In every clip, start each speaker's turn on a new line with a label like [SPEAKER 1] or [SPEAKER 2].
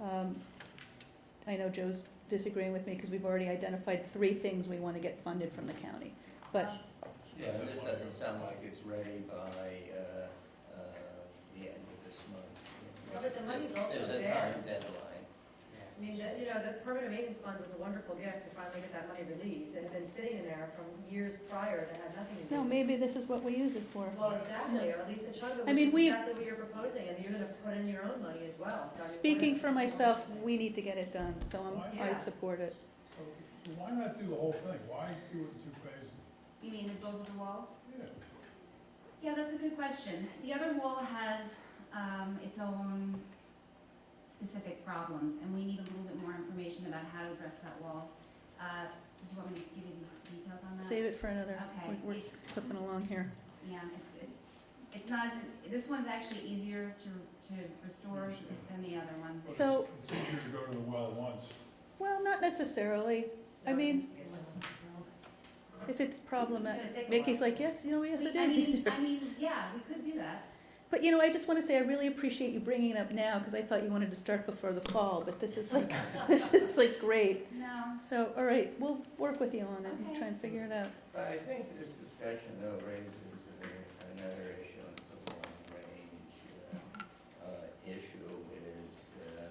[SPEAKER 1] Um, I know Joe's disagreeing with me because we've already identified three things we want to get funded from the county. But
[SPEAKER 2] Yeah, this doesn't sound like it's ready by, uh, uh, the end of this month.
[SPEAKER 3] Well, but the money's also
[SPEAKER 2] There's a
[SPEAKER 3] there.
[SPEAKER 2] time deadline.
[SPEAKER 3] I mean, the- you know, the permanent maintenance fund was a wonderful gift to finally get that money released. It had been sitting in there from years prior that had nothing to do.
[SPEAKER 1] no,
[SPEAKER 3] with it.
[SPEAKER 1] maybe this is what we use it for.
[SPEAKER 3] Well, exactly, or at least a chunk of
[SPEAKER 1] I
[SPEAKER 3] it,
[SPEAKER 1] mean,
[SPEAKER 3] which is
[SPEAKER 1] we-
[SPEAKER 3] exactly what you're proposing, and you're gonna put in your own money as well, so. I mean,
[SPEAKER 1] Speaking
[SPEAKER 3] we're-
[SPEAKER 1] for myself, we need to get it done, so I'm, I
[SPEAKER 3] Yeah.
[SPEAKER 1] support it.
[SPEAKER 4] So why not do the whole thing? Why do it in two phases?
[SPEAKER 5] You mean in both of the walls?
[SPEAKER 4] Yeah,
[SPEAKER 5] Yeah, that's a good question. The other wall has um, its own specific problems, and we need a little bit more information about how to address that wall. Uh, do you want me to give you the details on that?
[SPEAKER 1] Save it for another,
[SPEAKER 5] Okay,
[SPEAKER 1] we're- we're
[SPEAKER 5] it's-
[SPEAKER 1] clipping along here.
[SPEAKER 5] Yeah, it's, it's, it's not, as- this one's actually easier to, to restore than the other one.
[SPEAKER 4] but it's-
[SPEAKER 1] So-
[SPEAKER 4] It's easier to go to the well once.
[SPEAKER 1] Well, not necessarily. I mean-
[SPEAKER 3] It's gonna
[SPEAKER 1] If it's problematic,
[SPEAKER 3] take a
[SPEAKER 1] Mickey's
[SPEAKER 3] while.
[SPEAKER 1] like, yes, you know, yes,
[SPEAKER 5] We-
[SPEAKER 1] it
[SPEAKER 5] I
[SPEAKER 1] is.
[SPEAKER 5] mean, I mean, yeah, we could do that.
[SPEAKER 1] But, you know, I just want to say, I really appreciate you bringing it up now, because I thought you wanted to start before the fall, but this is like, this is like great.
[SPEAKER 5] No,
[SPEAKER 1] So, all right, we'll work with you on it and try and figure it out.
[SPEAKER 2] But I think this discussion though raises a- another issue, and it's a long-range, uh, uh, issue is, uh,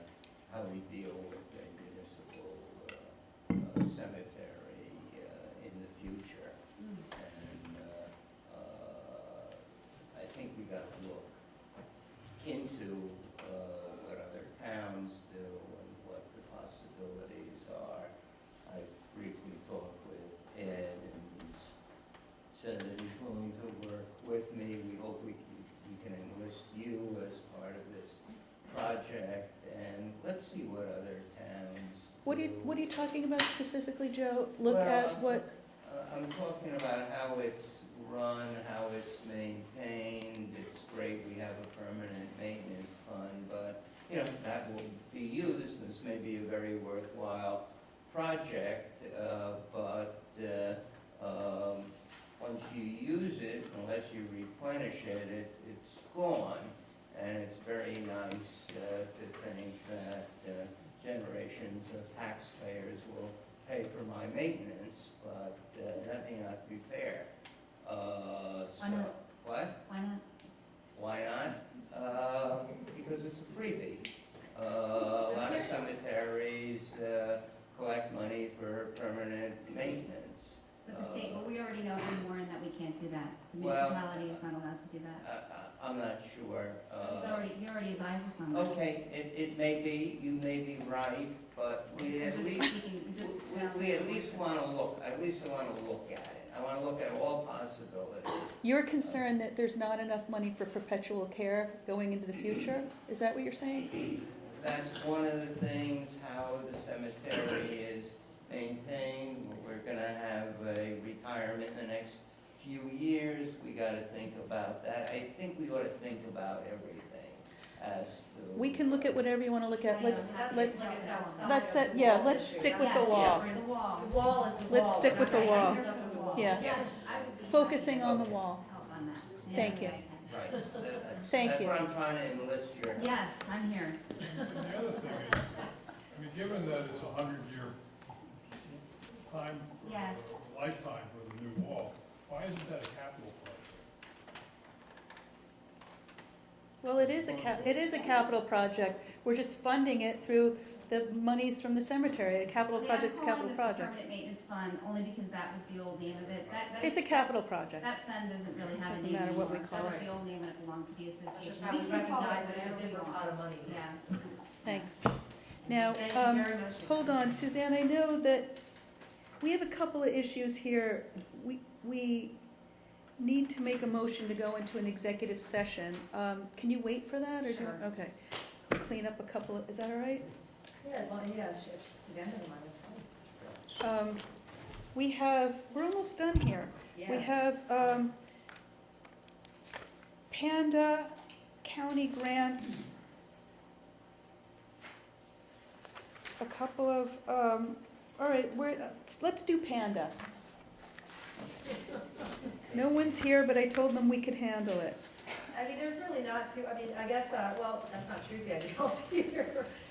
[SPEAKER 2] how we deal with the municipal, uh, uh, cemetery, uh, in the future.
[SPEAKER 5] Mm.
[SPEAKER 2] And uh, uh, I think we got to look into uh, what other towns do and what the possibilities are. I briefly talked with Ed and he's said that he's willing to work with me. We hope we can, we can enlist you as part of this project and let's see what other towns
[SPEAKER 1] What are you,
[SPEAKER 2] do.
[SPEAKER 1] what are you talking about specifically, Joe? Look
[SPEAKER 2] Well,
[SPEAKER 1] at what,
[SPEAKER 2] uh, I'm talking about how it's run, how it's maintained, it's great, we have a permanent maintenance fund, but, you know, that will be used, this may be a very worthwhile project, uh, but, uh, um, once you use it, unless you replenish it, it, it's gone. And it's very nice, uh, to think that, uh, generations of taxpayers will pay for my maintenance, but uh, that may not be fair. Uh,
[SPEAKER 5] Why
[SPEAKER 2] so-
[SPEAKER 5] not?
[SPEAKER 2] What?
[SPEAKER 5] why not?
[SPEAKER 2] Why not? Uh, Because it's a freebie. Uh, A lot of cemeteries uh, collect money for permanent maintenance.
[SPEAKER 5] But the state, but we already know in Warren that we can't do that. The
[SPEAKER 2] Well-
[SPEAKER 5] municipality is not allowed to do that.
[SPEAKER 2] I- I- I'm not sure.
[SPEAKER 5] He's
[SPEAKER 2] uh,
[SPEAKER 5] already, he already advised us on that.
[SPEAKER 2] Okay, it it may be, you may be right, but we
[SPEAKER 5] I'm
[SPEAKER 2] at
[SPEAKER 5] just
[SPEAKER 2] least
[SPEAKER 5] speaking- I'm just
[SPEAKER 2] We- We at least want to look, at least I want to look at it. I want to look at all possibilities.
[SPEAKER 1] you're concerned that there's not enough money for perpetual care going into the future? Is that what you're saying?
[SPEAKER 2] That's one of the things, how the cemetery is maintained. We're going to have a retirement in the next few years. We got to think about that. I think we ought to think about everything as to.
[SPEAKER 1] We can look at whatever you want to look at.
[SPEAKER 5] I know.
[SPEAKER 1] Let's,
[SPEAKER 3] That's
[SPEAKER 1] let's,
[SPEAKER 3] like it's outside
[SPEAKER 1] let's
[SPEAKER 3] of
[SPEAKER 1] set-
[SPEAKER 3] the
[SPEAKER 1] yeah,
[SPEAKER 3] wall
[SPEAKER 1] let's
[SPEAKER 3] issue.
[SPEAKER 1] stick with
[SPEAKER 3] That's
[SPEAKER 1] the wall.
[SPEAKER 3] different.
[SPEAKER 5] The wall.
[SPEAKER 3] The wall is the wall.
[SPEAKER 1] Let's stick
[SPEAKER 3] We're
[SPEAKER 1] with
[SPEAKER 3] not
[SPEAKER 1] the
[SPEAKER 3] gonna
[SPEAKER 1] wall.
[SPEAKER 3] fix up the wall.
[SPEAKER 1] Yeah.
[SPEAKER 5] Yes, I would be happy
[SPEAKER 1] focusing
[SPEAKER 5] to
[SPEAKER 1] on the
[SPEAKER 2] Okay.
[SPEAKER 1] wall.
[SPEAKER 5] Help on that. in
[SPEAKER 1] Thank
[SPEAKER 5] any
[SPEAKER 1] you.
[SPEAKER 5] way I
[SPEAKER 2] Right. That's-
[SPEAKER 1] Thank you.
[SPEAKER 2] That's what I'm trying to enlist your
[SPEAKER 5] can. Yes, I'm here.
[SPEAKER 4] And the other thing is, I mean, given that it's a hundred-year time,
[SPEAKER 5] Yes.
[SPEAKER 4] lifetime for the new wall, why isn't that a capital project?
[SPEAKER 1] Well, it is a cap, it is a capital project. We're just funding it through the monies from the cemetery. A capital
[SPEAKER 5] I mean,
[SPEAKER 1] project's a capital
[SPEAKER 5] I'm calling this the
[SPEAKER 1] project.
[SPEAKER 5] permanent maintenance fund only because that was the old name of it. That, that-
[SPEAKER 1] It's a capital project.
[SPEAKER 5] That fund doesn't really have a
[SPEAKER 1] Doesn't
[SPEAKER 5] name
[SPEAKER 1] matter
[SPEAKER 5] anymore.
[SPEAKER 1] what we
[SPEAKER 5] That
[SPEAKER 1] call
[SPEAKER 5] was
[SPEAKER 1] it.
[SPEAKER 5] the old name and it belonged to the association.
[SPEAKER 3] That's just how we
[SPEAKER 5] can call it
[SPEAKER 3] recognize that it's a
[SPEAKER 5] whatever we
[SPEAKER 3] different
[SPEAKER 5] want.
[SPEAKER 3] pot of money.
[SPEAKER 5] Yeah.
[SPEAKER 1] Thanks. Now,
[SPEAKER 3] Thank you
[SPEAKER 1] um,
[SPEAKER 3] very much.
[SPEAKER 1] Hold on, Suzanne, I know that we have a couple of issues here. We, we need to make a motion to go into an executive session. Um, Can you wait for that, or do,
[SPEAKER 3] Sure.
[SPEAKER 1] okay. Clean up a couple, of- is that all right?
[SPEAKER 3] Yeah, as long, yeah, if if Suzanne doesn't mind, that's fine.
[SPEAKER 1] Um, We have, we're almost done here.
[SPEAKER 3] Yeah.
[SPEAKER 1] We have um, Panda County grants, a couple of, um, all right, we're, let's do Panda. No one's here, but I told them we could handle it.
[SPEAKER 3] I mean, there's really not too, I mean, I guess, uh, well, that's not true, Danielle's here.